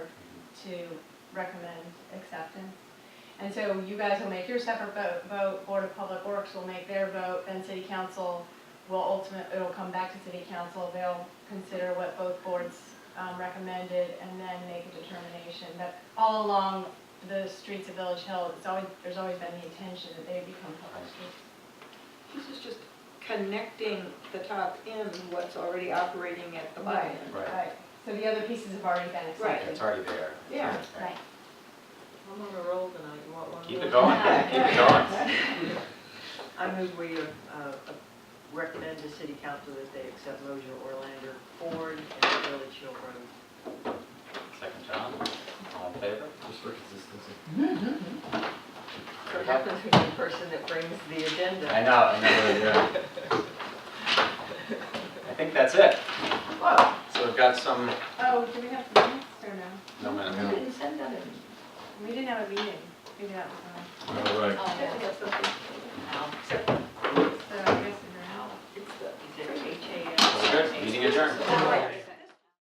to recommend acceptance. And so you guys will make your separate vote, vote, Board of Public Works will make their vote, then City Council will ultimate, it'll come back to City Council, they'll consider what both boards um, recommended and then make a determination. But all along the streets of Village Hill, it's always, there's always been the intention that they become public streets. This is just connecting the top end, what's already operating at the bottom end. Right. Uh, So the other pieces have already been Right. accepted. It's already there. Yeah. Right. I'm on a roll tonight, you want one? of Keep it those? going, man. keep it going. I move we uh, uh, recommend to city council that they accept Mojo Orlander Ford and Village Hill Road. Second John, all in favor? Just for consistency. So it happens to be the person that brings the agenda. I know, I know, yeah. I think that's it. Whoa, So we've got some, Oh, do we have minutes or no? no you minute. didn't send that in. We didn't have a meeting. Maybe that was why. All right. Oh, Yeah, we have something. Now, So I guess we're out. it's the, it's H A We're good, meeting adjourned. S.